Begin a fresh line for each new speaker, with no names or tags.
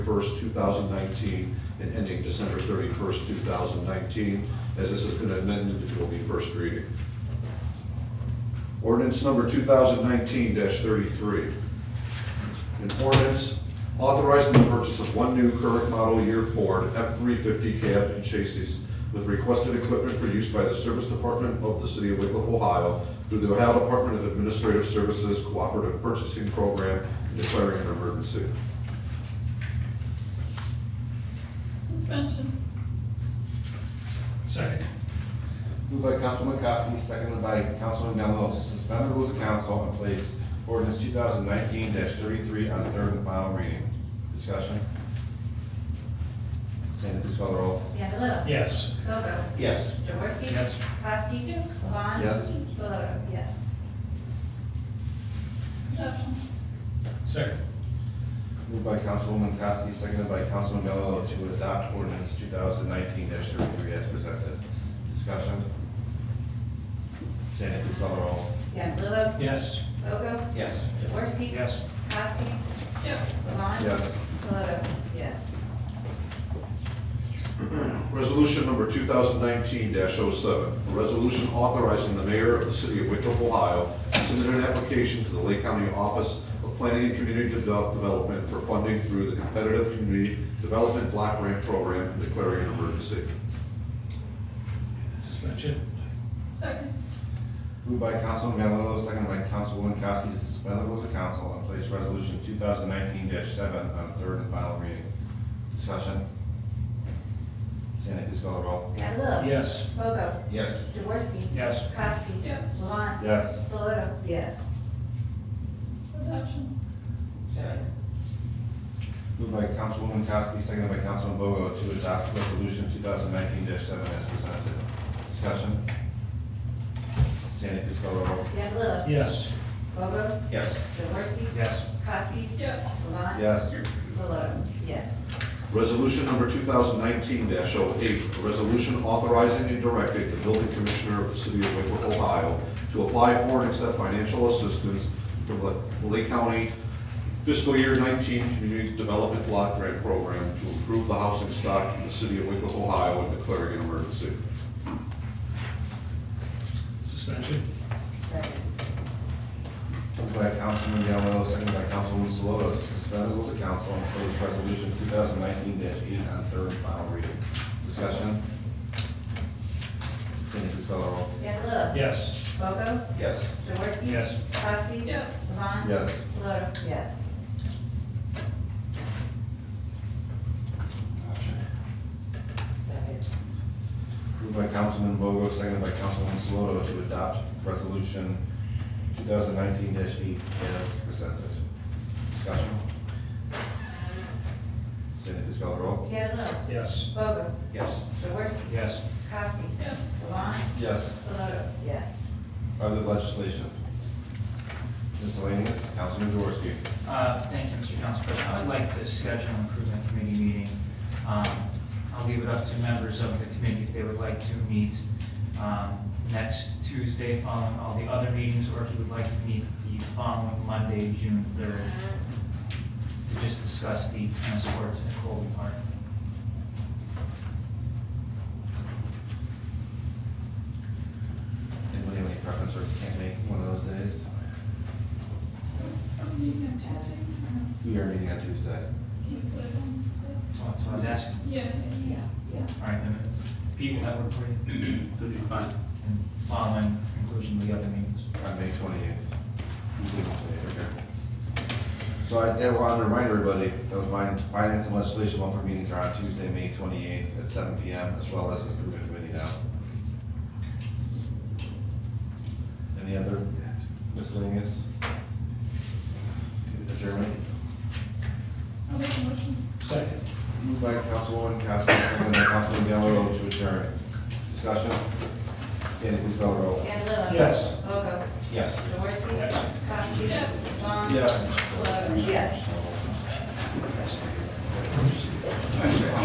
1st, 2019, and ending December 31st, 2019, as this has been amended, it will be first reading. Ordinance number 2019-33. An ordinance authorizing the purchase of one new current model year Ford F-350 cab and chassis with requested equipment for use by the Service Department of the City of Wickliffe, Ohio, through the Ohio Department of Administrative Services Cooperative Purchasing Program, and declaring an emergency.
Suspension.
Second.
Moved by Councilman McCoskey, seconded by Councilman Demerol to suspend the rules of council and place ordinance two thousand nineteen thirty-three on third and final reading. Discussion? Sandy, please call the roll.
Candelo.
Yes.
Bogo.
Yes.
Jaworski.
Yes.
Kowski.
Yes.
Levon.
Yes.
Solot. Yes.
Adoption.
Second.
Moved by Councilwoman McCoskey, seconded by Councilman Demerol to adopt ordinance two thousand nineteen thirty-three as presented. Discussion? Sandy, please call the roll.
Candelo.
Yes.
Bogo.
Yes.
Jaworski.
Yes.
Kowski.
Yes.
Levon.
Yes.
Solot. Yes.
Resolution number 2019-07, a resolution authorizing the mayor of the city of Wickliffe, Ohio, to submit an application to the Lake County Office of Planning and Community Devel- Development for funding through the Competitive Community Development Block Grant Program and declaring an emergency.
Suspension.
Second.
Moved by Councilman Mandelo, seconded by Councilwoman Kowski to suspend the rules of council and place resolution two thousand nineteen seven on third and final reading. Discussion? Sandy, please call the roll.
Candelo.
Yes.
Bogo.
Yes.
Jaworski.
Yes.
Kowski.
Yes.
Levon.
Yes.
Solot. Yes.
Adoption.
Moved by Councilwoman Kowski, seconded by Councilman Bogo to adopt resolution two thousand nineteen seven as presented. Discussion? Sandy, please call the roll.
Candelo.
Yes.
Bogo.
Yes.
Jaworski.
Yes.
Kowski.
Yes.
Levon.
Yes.
Solot. Yes.
Resolution number 2019-08, a resolution authorizing and directing the building commissioner of the city of Wickliffe, Ohio, to apply for and accept financial assistance from the Lake County Fiscal Year 19 Community Development Block Grant Program to improve the housing stock in the city of Wickliffe, Ohio, and declaring an emergency.
Suspension.
Second.
Moved by Councilman Yamamoto, seconded by Councilwoman Saloto, to suspend the rules of council and place resolution two thousand nineteen eight on third and final reading. Discussion? Cindy, please call the roll.
Candelo.
Yes.
Bogo.
Yes.
Jaworski.
Yes.
Kowski.
Yes.
Levon.
Yes.
Solot. Yes. Second.
Moved by Councilman Bogo, seconded by Councilwoman Saloto, to adopt resolution two thousand nineteen eight as presented. Discussion? Cindy, please call the roll.
Candelo.
Yes.
Bogo.
Yes.
Jaworski.
Yes.
Kowski.
Yes.
Levon.
Yes.
Solotra. Yes.
Other legislation. Miscellaneous, Councilman Jaworski.
Uh, Thank you, Mr. Council President. I would like to schedule an improvement committee meeting. Um, I'll leave it up to members of the committee if they would like to meet um, next Tuesday following all the other meetings, or if you would like to meet the following Monday, June 3rd, to just discuss the tennis courts at Colby Park.
Anybody have any preference or can't make one of those days?
Are we using Tuesday?
We are meeting on Tuesday.
Can you put it on?
So that's what I was asking.
Yeah.
Yeah, yeah.
All right, then, people that work for you,
That'd be fine.
and following conclusion of the other meetings.
On May twenty-eighth. So I, I wanted to remind everybody, that was my finance and legislation welfare meetings are on Tuesday, May twenty-eighth at seven P M, as well as the improvement committee now. Any other miscellaneous? Adjournment?
I'll make a motion.
Second.
Moved by Councilwoman Cassidy, seconded by Councilman Delarose to adjourn. Discussion? Sandy, please call the roll.
Candelo.
Yes.
Bogo.
Yes.
Jaworski.
Yes.
Kowski.
Yes.
Levon.
Yes.
Solot. Yes.